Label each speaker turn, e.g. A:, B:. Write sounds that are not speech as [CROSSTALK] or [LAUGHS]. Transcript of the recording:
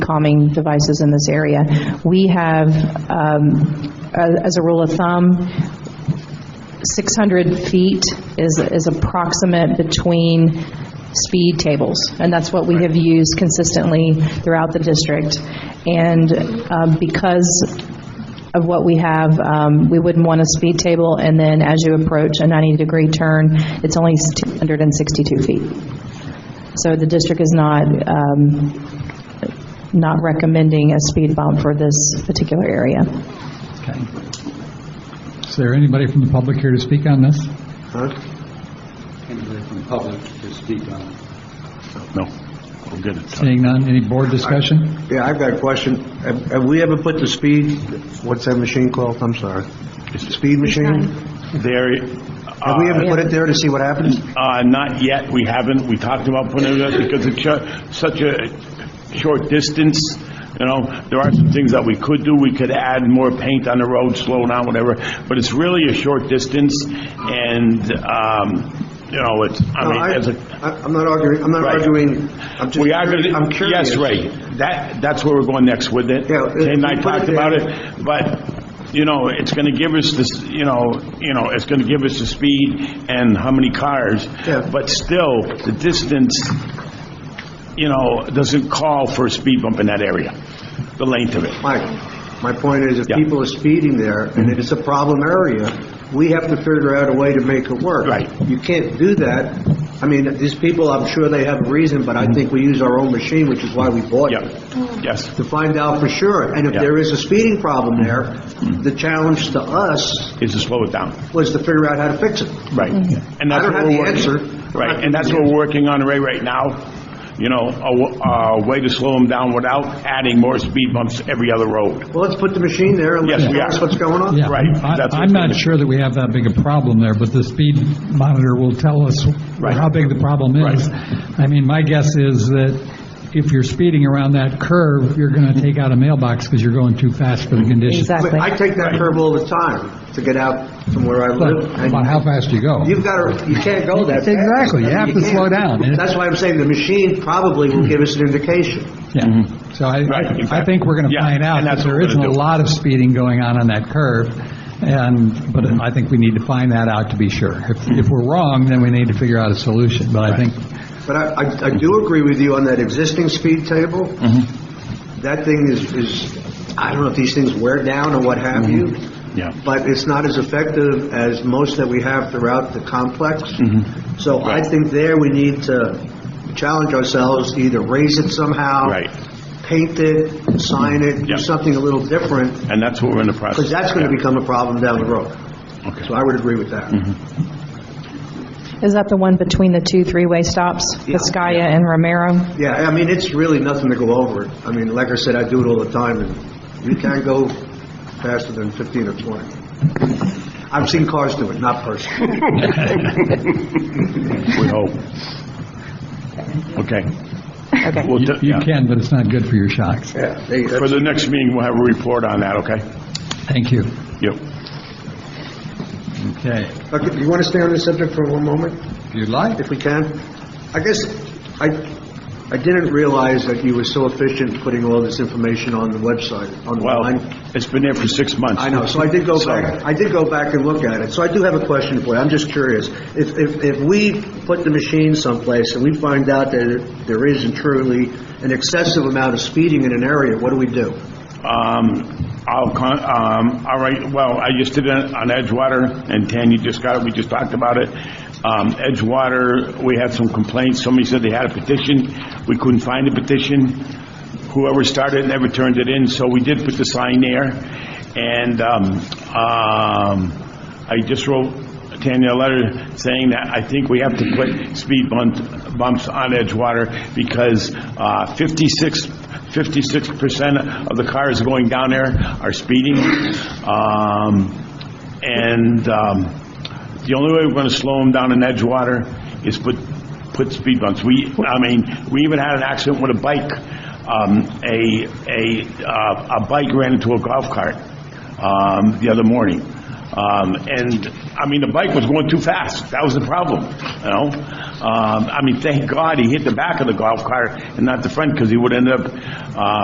A: calming devices in this area. We have, um, a- as a rule of thumb, 600 feet is, is approximate between speed tables, and that's what we have used consistently throughout the district. And um, because of what we have, um, we wouldn't want a speed table, and then as you approach a 90-degree turn, it's only 162 feet. So the district is not, um, not recommending a speed bump for this particular area.
B: Okay. Is there anybody from the public here to speak on this?
C: anybody from the public to speak on it.
D: No, we're good
E: [LAUGHS]
D: at time.
B: Seeing none, any board discussion?
E: Yeah, I've got a question. Have have we ever put the speed, what's that machine called? I'm sorry. Speed machine?
D: There,
E: Have we ever
D: uh,
E: put it there to see what happens?
D: uh, not yet, we haven't, we talked about putting it up because it's ju- such a short distance, you know, there are some things that we could do, we could add more paint on the road, slow down, whatever, but it's really a short distance, and, um, you know, it's, I
E: No,
D: mean,
E: I-
D: as a...
E: I- I'm not arguing, I'm not
D: Right.
E: arguing, I'm just,
D: We are going to...
E: I'm curious.
D: Yes, Ray, that, that's where we're going next with it.
E: Yeah, if
D: Ken and
E: we
D: I
E: put
D: talked
E: it
D: about
E: there-
D: it, but, you know, it's going to give us this, you know, you know, it's going to give us the speed and how many cars,
E: Yeah.
D: but still, the distance, you know, doesn't call for a speed bump in that area, the length of it.
E: Mike, my point is, if
D: Yeah.
E: people are speeding there, and it's a problem area, we have to figure out a way to make it work.
D: Right.
E: You can't do that. I mean, these people, I'm sure they have a reason, but I think we use our own machine, which is why we bought it.
D: Mm-hmm. Yeah, yes,
E: to find out for sure. And if
D: Yeah. Mm-hmm.
E: there is a speeding problem there, the challenge to us
D: is to slow it down.
E: was to figure out how to fix it.
D: Right.
B: Mm-hmm.
D: And
E: I
D: that's
E: don't
D: what
E: have
D: we're
E: the
D: working-
E: answer.
D: Right, and that's what we're working on right, right now, you know, a, w- a way to slow them down without adding more speed bumps every other road.
E: Well, let's put the machine there and let's
D: Yes, we
E: notice
D: are.
E: what's going on.
B: Yeah,
D: Right,
B: I-
D: that's
B: I'm
D: what's
B: not
D: gonna-
B: sure that we have that big a problem there, but the speed monitor will tell us
D: Right.
B: how big the problem is. I mean, my guess is that if you're speeding around that curve, you're going to take out a mailbox because you're going too fast for the condition.
E: I mean,
A: Exactly.
E: I take that curve all the time to get out from where I
B: But
E: live.
B: about
E: And
B: how fast you go.
E: you've got to, you can't go that fast.
B: Exactly, you have to
E: can't.
B: slow down. And it-
E: That's why I'm saying the machine probably will give us an indication.
B: Yeah, so I,
D: Right,
B: I think we're going to
D: Yeah,
B: find out
D: and
B: that
D: that's what
B: there
D: we're
B: isn't
D: gonna
B: a
D: do.
B: lot of speeding going on on that curve, and, but I think we need to find that out to be sure. If, if we're wrong, then we need to figure out a solution, but I think,
E: But I, I- I do agree with you on that existing speed table.
D: Mm-hmm.
E: That thing is, is, I don't know if these things wear down or what have you.
D: Yeah.
E: But it's not as effective as most that we have throughout the complex.
D: Mm-hmm.
E: So I think there we need to challenge ourselves, to either raise it somehow.
D: Right.
E: Paint it, sign it, do
D: Yeah.
E: something a little different,
D: And that's what we're in the process.
E: because that's going to
D: Yeah.
E: become a problem down the road.
D: Okay. Mm-hmm.
E: So I would agree with that.
A: Is that the one between the two three-way stops, Viscaya and Romero?
E: Yeah, I mean, it's really nothing to go over. I mean, like I said, I do it all the time, and you can't go faster than 15 or 20. I've seen cars do it, not personally.
D: We hope. Okay.
A: Okay.
D: We'll t-
B: you
D: yeah.
B: can, but it's not good for your shocks.
E: Yeah, they-
D: For
E: that's-
D: the next meeting, we'll have a report on that, okay?
B: Thank you.
D: Yep.
B: Okay,
E: Okay, Do you want to stay on this subject for one moment,
B: if you'd like.
E: if we can? I guess, I, I didn't realize that you were so efficient putting all this information on the website, on the
D: Well,
E: line.
D: it's been there for six months.
E: I know, so I did go back, I did go back and look at it, so I do have a question for you, I'm just curious. If, if, if we put the machine someplace and we find out that there isn't truly an excessive amount of speeding in an area, what do we do?
D: Um, I'll con, um, all right, well, I just did it on Edgewater, and Tan, you just got it, we just talked about it. Um, Edgewater, we had some complaints, somebody said they had a petition, we couldn't find the petition. Whoever started it never turned it in, so we did put the sign there. And, um, um, I just wrote Tanya a letter saying that I think we have to put speed bump- bumps on Edgewater because, uh, 56 56 percent of the cars going down there are speeding. Um, And um, the only way we're going to slow them down in Edgewater is put, put speed bumps. We, I mean, we even had an accident with a bike. Um, A, a, uh, a bike ran into a golf cart um, the other morning. Um, And, I mean, the bike was going too fast. That was the problem, you know? Um, I mean, thank God he hit the back of the golf cart and not the front because he would end up uh,